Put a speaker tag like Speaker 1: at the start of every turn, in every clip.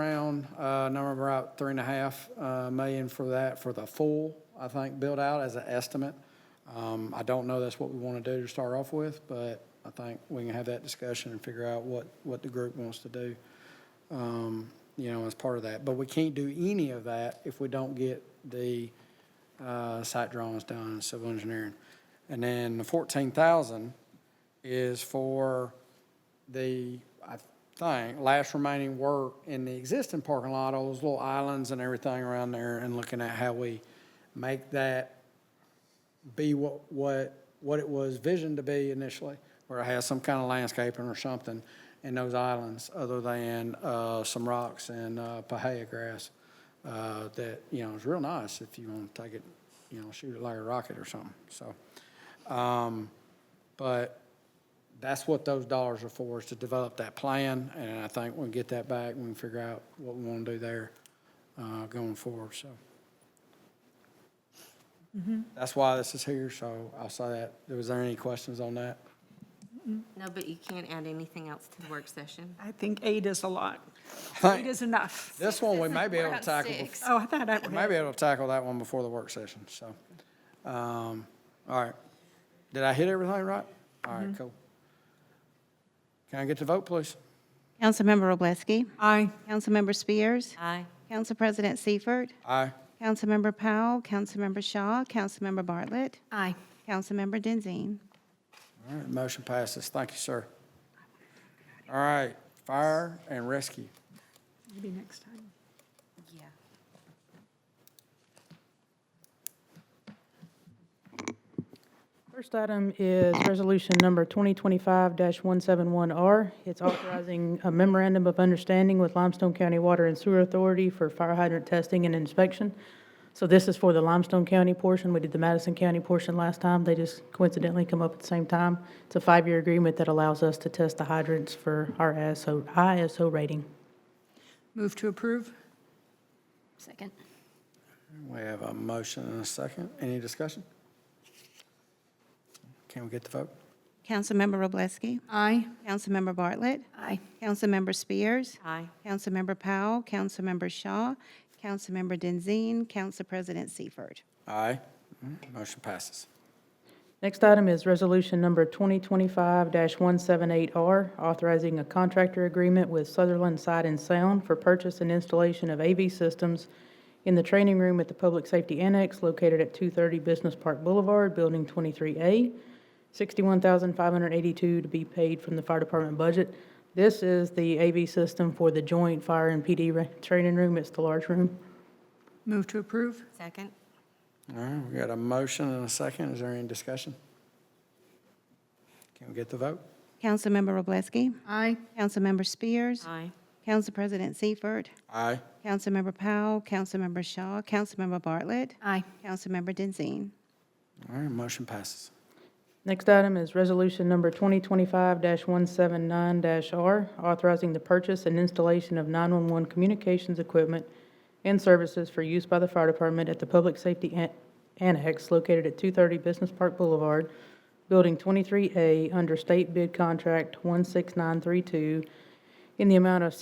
Speaker 1: around, uh, number about three and a half, uh, million for that, for the full, I think, build out as an estimate. Um, I don't know that's what we want to do to start off with, but I think we can have that discussion and figure out what, what the group wants to do, um, you know, as part of that. But we can't do any of that if we don't get the, uh, site drawings done and civil engineering. And then the fourteen thousand is for the, I think, last remaining work in the existing parking lot, all those little islands and everything around there, and looking at how we make that be what, what, what it was visioned to be initially, where it has some kind of landscaping or something in those islands, other than, uh, some rocks and, uh, pahaya grass, uh, that, you know, is real nice if you want to take it, you know, shoot it like a rocket or something, so. Um, but that's what those dollars are for, is to develop that plan, and I think we'll get that back, and we can figure out what we want to do there, uh, going forward, so. That's why this is here, so I'll say that. Was there any questions on that?
Speaker 2: No, but you can't add anything else to the work session.
Speaker 3: I think eight is a lot.
Speaker 1: Thank-
Speaker 3: Eight is enough.
Speaker 1: This one, we may be able to tackle, bef-
Speaker 3: Oh, I thought I
Speaker 1: we may
Speaker 3: would.
Speaker 1: be able to tackle that one before the work session, so. Um, all right. Did I hit everything right? All right, cool. Can I get the vote, please?
Speaker 4: Councilmember Roblesky.
Speaker 3: Aye.
Speaker 4: Councilmember Spears.
Speaker 2: Aye.
Speaker 4: Council President Seifert.
Speaker 1: Aye.
Speaker 4: Councilmember Powell. Councilmember Shaw. Councilmember Bartlett.
Speaker 2: Aye.
Speaker 4: Councilmember Denzine.
Speaker 1: All right, motion passes. Thank you, sir. All right, fire and rescue.
Speaker 3: Maybe next time.
Speaker 2: Yeah.
Speaker 5: First item is Resolution Number 2025-171R. It's authorizing a memorandum of understanding with Limestone County Water and Sewer Authority for fire hydrant testing and inspection. So this is for the Limestone County portion. We did the Madison County portion last time. They just coincidentally come up at the same time. It's a five-year agreement that allows us to test the hydrants for our ISO ISO rating.
Speaker 3: Move to approve?
Speaker 2: Second.
Speaker 1: We have a motion and a second. Any discussion? Can we get the vote?
Speaker 4: Councilmember Roblesky.
Speaker 3: Aye.
Speaker 4: Councilmember Bartlett.
Speaker 2: Aye.
Speaker 4: Councilmember Spears.
Speaker 2: Aye.
Speaker 4: Councilmember Powell. Councilmember Shaw. Councilmember Denzine. Council President Seifert.
Speaker 1: Aye. Motion passes.
Speaker 5: Next item is Resolution Number 2025-178R, authorizing a contractor agreement with Sutherland Sight and Sound for purchase and installation of AV systems in the training room at the Public Safety Annex located at 230 Business Park Boulevard, Building 23A, $61,582 to be paid from the Fire Department budget. This is the AV system for the joint fire and PD ra- training room. It's the large room.
Speaker 3: Move to approve?
Speaker 2: Second.
Speaker 1: All right, we got a motion and a second. Is there any discussion? Can we get the vote?
Speaker 4: Councilmember Roblesky.
Speaker 3: Aye.
Speaker 4: Councilmember Spears.
Speaker 2: Aye.
Speaker 4: Council President Seifert.
Speaker 1: Aye.
Speaker 4: Councilmember Powell. Councilmember Shaw. Councilmember Bartlett.
Speaker 2: Aye.
Speaker 4: Councilmember Denzine.
Speaker 1: All right, motion passes.
Speaker 5: Next item is Resolution Number 2025-179-R, authorizing the purchase and installation of 911 communications equipment and services for use by the fire department at the Public Safety An- Annex located at 230 Business Park Boulevard, Building 23A, under State Bid Contract 16932, in the amount of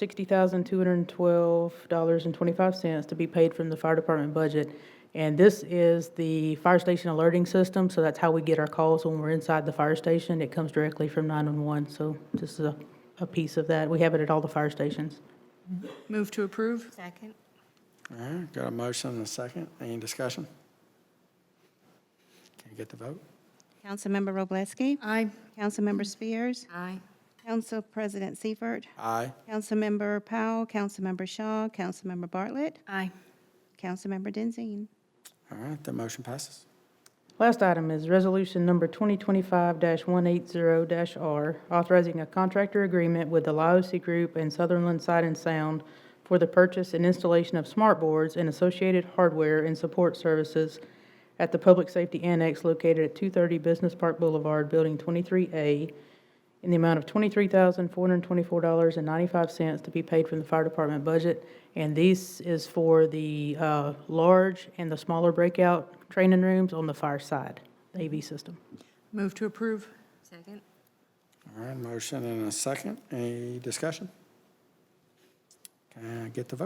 Speaker 5: $60,212.25 to be paid from the fire department budget. And this is the fire station alerting system, so that's how we get our calls when we're inside the fire station. It comes directly from 911, so this is a, a piece of that. We have it at all the fire stations.
Speaker 3: Move to approve?
Speaker 2: Second.
Speaker 1: All right, got a motion and a second. Any discussion? Can we get the vote?
Speaker 4: Councilmember Roblesky.
Speaker 3: Aye.
Speaker 4: Councilmember Spears.
Speaker 2: Aye.
Speaker 4: Council President Seifert.
Speaker 1: Aye.
Speaker 4: Councilmember Powell. Councilmember Shaw. Councilmember Bartlett.
Speaker 2: Aye.
Speaker 4: Councilmember Denzine.
Speaker 1: All right, the motion passes.
Speaker 5: Last item is Resolution Number 2025-180-R, authorizing a contractor agreement with the LaOC Group and Sutherland Sight and Sound for the purchase and installation of smart boards and associated hardware and support services at the Public Safety Annex located at 230 Business Park Boulevard, Building 23A, in the amount of $23,424.95 to be paid from the fire department budget. And this is for the uh, large and the smaller breakout training rooms on the fire side, the AV system.
Speaker 3: Move to approve?
Speaker 2: Second.
Speaker 1: All right, motion and a second. Any discussion? Can I get the vote?